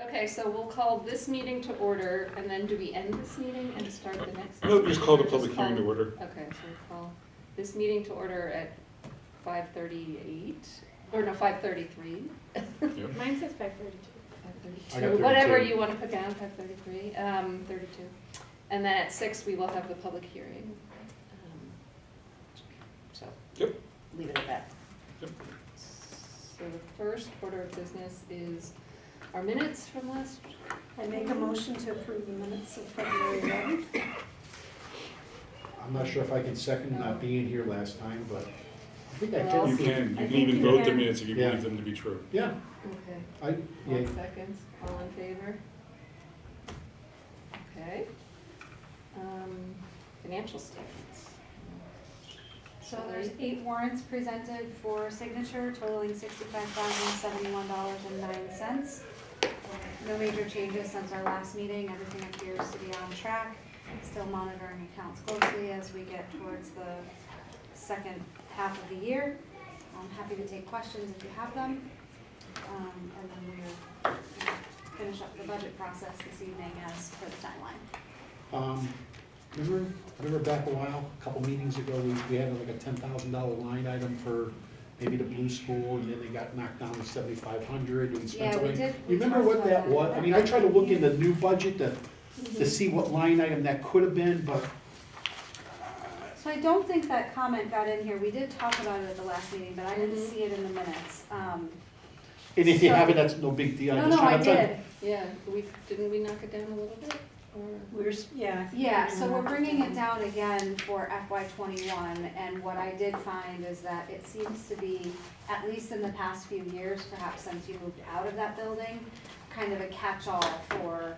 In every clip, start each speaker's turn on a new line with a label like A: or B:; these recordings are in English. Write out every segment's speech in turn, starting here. A: Okay, so we'll call this meeting to order, and then do we end this meeting and start the next?
B: No, just call the
A: Or
B: public hearing to
A: call-
B: order.
A: Okay, so we'll call this meeting to order at five thirty-eight, or no, five thirty-three.
C: Mine says five thirty-two.
B: I got
A: Whatever
B: 32.
A: you wanna put down, five thirty-three, um, thirty-two. And then at six, we will have the public hearing. Um, So.
B: Yep.
A: Leave it at that.
B: Yep.
A: So the first order of business is our minutes from last
C: I make a motion to approve the minutes of February eleventh.
D: I'm not sure if I can second not being here last time, but I think I
A: Well-
B: You
D: did.
B: can, you
C: I
B: can
C: think
B: even
C: you
B: vote the
C: can.
B: minutes if you
D: Yeah.
B: believe them to be true.
D: Yeah,
A: Okay,
D: I, yeah,
A: one second, all in favor? Okay. Um, Financial statements.
E: So there's eight warrants presented for signature totaling sixty-five thousand seventy-one dollars and nine cents. No major changes since our last meeting, everything appears to be on track. Still monitoring accounts closely as we get towards the second half of the year. I'm happy to take questions if you have them. Um, and then we'll uh, finish up the budget process this evening as per the timeline.
D: um, remember, remember back a while, a couple meetings ago, we, we had like a ten thousand dollar line item for maybe the blue school, and then they got knocked down to seventy-five hundred, and we spent.
E: Yeah, we
D: away.
E: did- we
D: You Remember
E: talked
D: what
E: about
D: that
E: that. Mm-hmm.
D: was? I mean, I tried to look in the new budget to, to see what line item that could have been, but
E: So I don't think that comment got in here. We did talk about it at the last meeting, but I didn't see it in the minutes. Um,
D: And if you
E: So-
D: have it, that's no big deal. I'm
E: No,
D: just
E: no,
D: trying
E: I
D: to tell you-
E: did.
A: Yeah, we, didn't we knock it down a little bit, or?
C: We're, s- yeah. I think
E: Yeah,
C: we're
E: so
C: gonna
E: we're
C: knock
E: bringing it
C: down.
E: down again for FY twenty-one, and what I did find is that it seems to be, at least in the past few years, perhaps since you moved out of that building, kind of a catch-all for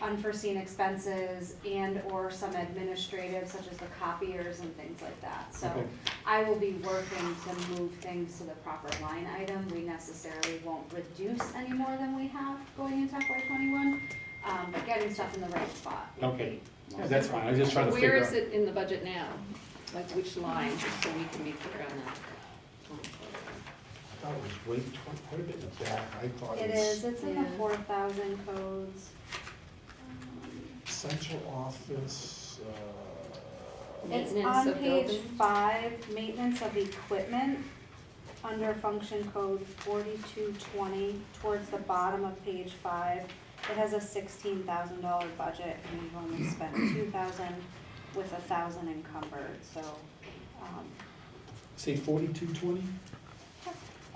E: unforeseen expenses and/or some administrative, such as the copiers and things like that. So
D: Okay.
E: I will be working to move things to the proper line item. We necessarily won't reduce any more than we have going into FY twenty-one, um, but getting stuff in the right spot. would be
D: Okay. Yeah, That's fine, I was just trying to
A: Where
D: figure
A: is
D: out.
A: it in the budget now? Like which line, just so we can be clear on that?
D: I thought it was way, tw- quite a bit in the back, I thought
E: It
D: it
E: is,
D: was
E: it's in the
A: Yeah.
E: four thousand codes.
D: central office, uh,
E: It's
A: Maintenance
E: on
A: of
E: page
A: buildings?
E: five, maintenance of equipment, under function code forty-two twenty, towards the bottom of page five. It has a sixteen thousand dollar budget, and we've only spent two thousand with a thousand encumbered, so, um,
D: say forty-two twenty?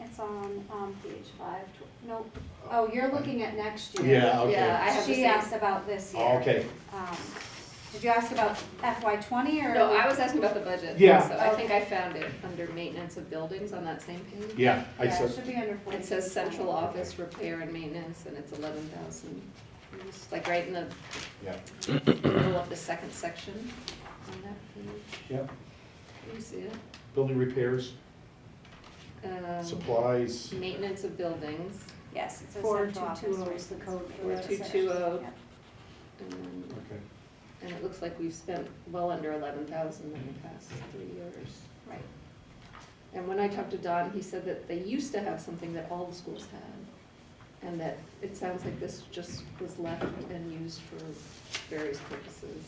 E: it's on, um, page five, tw- no, oh, you're looking at next year.
D: Yeah, okay.
A: Yeah, I have the
E: She
A: same-
E: asked about this year.
D: Okay,
E: Um, Did you ask about FY twenty or?
A: No, I was asking about the budget.
D: Yeah.
A: So I think I found it under maintenance of buildings on that same page.
D: yeah, I
E: Yeah, it
D: said,
E: should be under forty.
A: It says central office repair and maintenance, and it's eleven thousand. It's like right in the
D: yeah,
A: middle of the second section on that page.
D: yeah,
A: Can you see it?
D: building repairs,
A: Um,
D: supplies,
A: Maintenance of buildings,
E: Yes, it says
C: Four
E: central
C: two
E: office.
C: two oh
E: right?
C: is the code for
E: Four
C: that
E: two
C: section.
E: two oh.
A: Yep. um,
D: okay.
A: and it looks like we've spent well under eleven thousand in the past three years.
E: Right.
A: And when I talked to Don, he said that they used to have something that all the schools had, and that it sounds like this just was left and used for various purposes,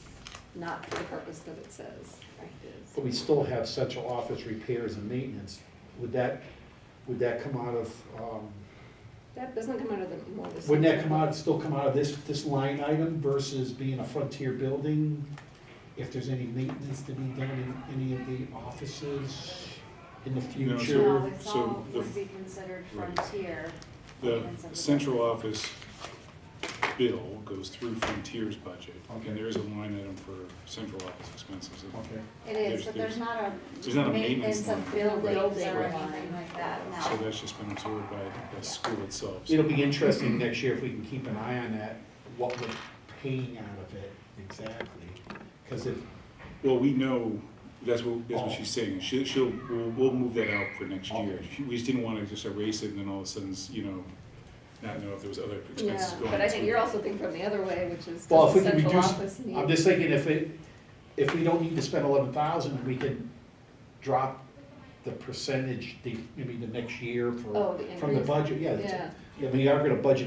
A: not for the purpose that it says it
D: But we still have central office repairs and maintenance. Would that, would that come out of, um,
A: is. That doesn't come out of the, more the.
D: wouldn't that come out, still come out of this, this line item versus being a frontier building? If there's any maintenance to be done in any of the offices in the
B: No, so-
D: future?
E: No, it's
B: so
E: all
B: the-
E: would be considered
B: right.
E: frontier.
B: The
E: maintenance of the
B: central office bill goes through Frontier's budget,
D: Okay.
B: and there is a line item for central office expenses.
D: Okay.
E: It is,
B: There's-
E: but
B: there's-
E: there's not
B: there's
E: a
B: not a
E: maintenance
B: maintenance
E: of
B: line.
E: buildings or
A: Right.
E: anything like that,
B: So
E: no.
B: that's just been absorbed by the school itself. so-
D: It'll be interesting next year if we can keep an eye on that, what we're paying out of it exactly. Because it,
B: Well, we know, that's what, that's what
D: Oh.
B: she's saying, she, she'll, we'll, we'll move that out for next year.
D: Okay.
B: She- We just didn't wanna just erase it and then all of a sudden, you know, not know if there was other expenses
A: Yeah,
B: going.
A: but I think
B: to-
A: you're also thinking from the other way, which is
D: Well,
A: does
D: if
A: the
D: we can
A: central
D: reduce-
A: office need?
D: I'm just thinking if it, if we don't need to spend eleven thousand, we can drop the percentage the, maybe the next year
A: Oh,
D: for,
A: the
D: from the
A: increase,
D: budget, yeah.
A: yeah.
D: I mean, we are gonna budget